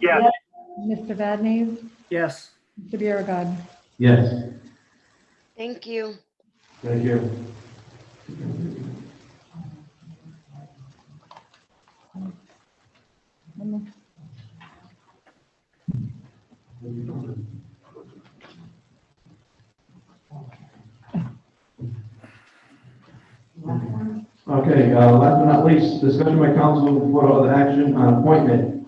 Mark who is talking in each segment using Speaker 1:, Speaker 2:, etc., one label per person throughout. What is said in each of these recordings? Speaker 1: Yes.
Speaker 2: Mr. Vadnez,
Speaker 3: Yes.
Speaker 2: Mr. Biragad.
Speaker 4: Yes.
Speaker 5: Thank you.
Speaker 4: Thank you. Okay, uh, last but not least, discussion by council for other action on appointment.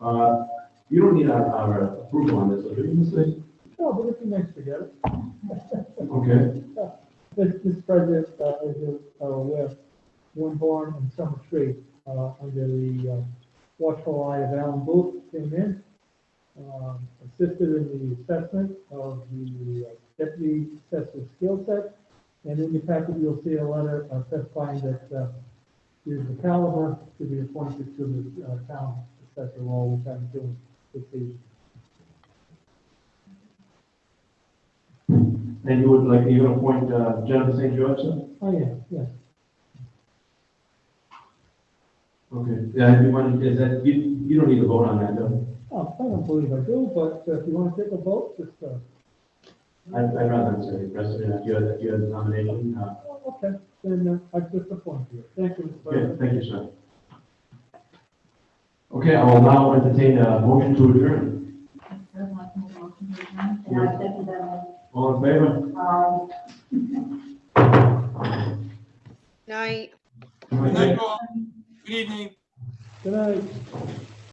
Speaker 4: Uh, You don't need our- our approval on this, do you, Mr. Lee?
Speaker 6: No, but it's nice to get it.
Speaker 4: Okay.
Speaker 6: This, this project, uh, is, uh, with one barn and summer tree, uh, under the, uh, watchful eye of Alan Booth came in, um, assisted in the assessment of the uh, deputy assessor's skill set. And in your packet, you'll see a letter uh, specifying that, uh, is the caliber to be appointed to the, uh, town assessor role, which I'm doing this evening.
Speaker 4: And you would like, you're gonna appoint uh, Jennifer St. George, sir?
Speaker 6: Oh, yeah, yeah.
Speaker 4: Okay, yeah, if you want, is that, you, you don't need to vote on that, though.
Speaker 6: Oh, I don't believe I do, but uh, if you want to take a vote, just, uh,
Speaker 4: I'd, I'd rather not say, President, if you had, if you had a nomination, uh,
Speaker 6: oh, okay, then uh, I just appoint you. Thank you, Mr.
Speaker 4: yeah,
Speaker 6: President.
Speaker 4: thank you, sir. Okay, I will now entertain a motion to adjourn.
Speaker 7: I'd like to make a motion to adjourn. And I second that.
Speaker 4: All in favor?
Speaker 7: Um,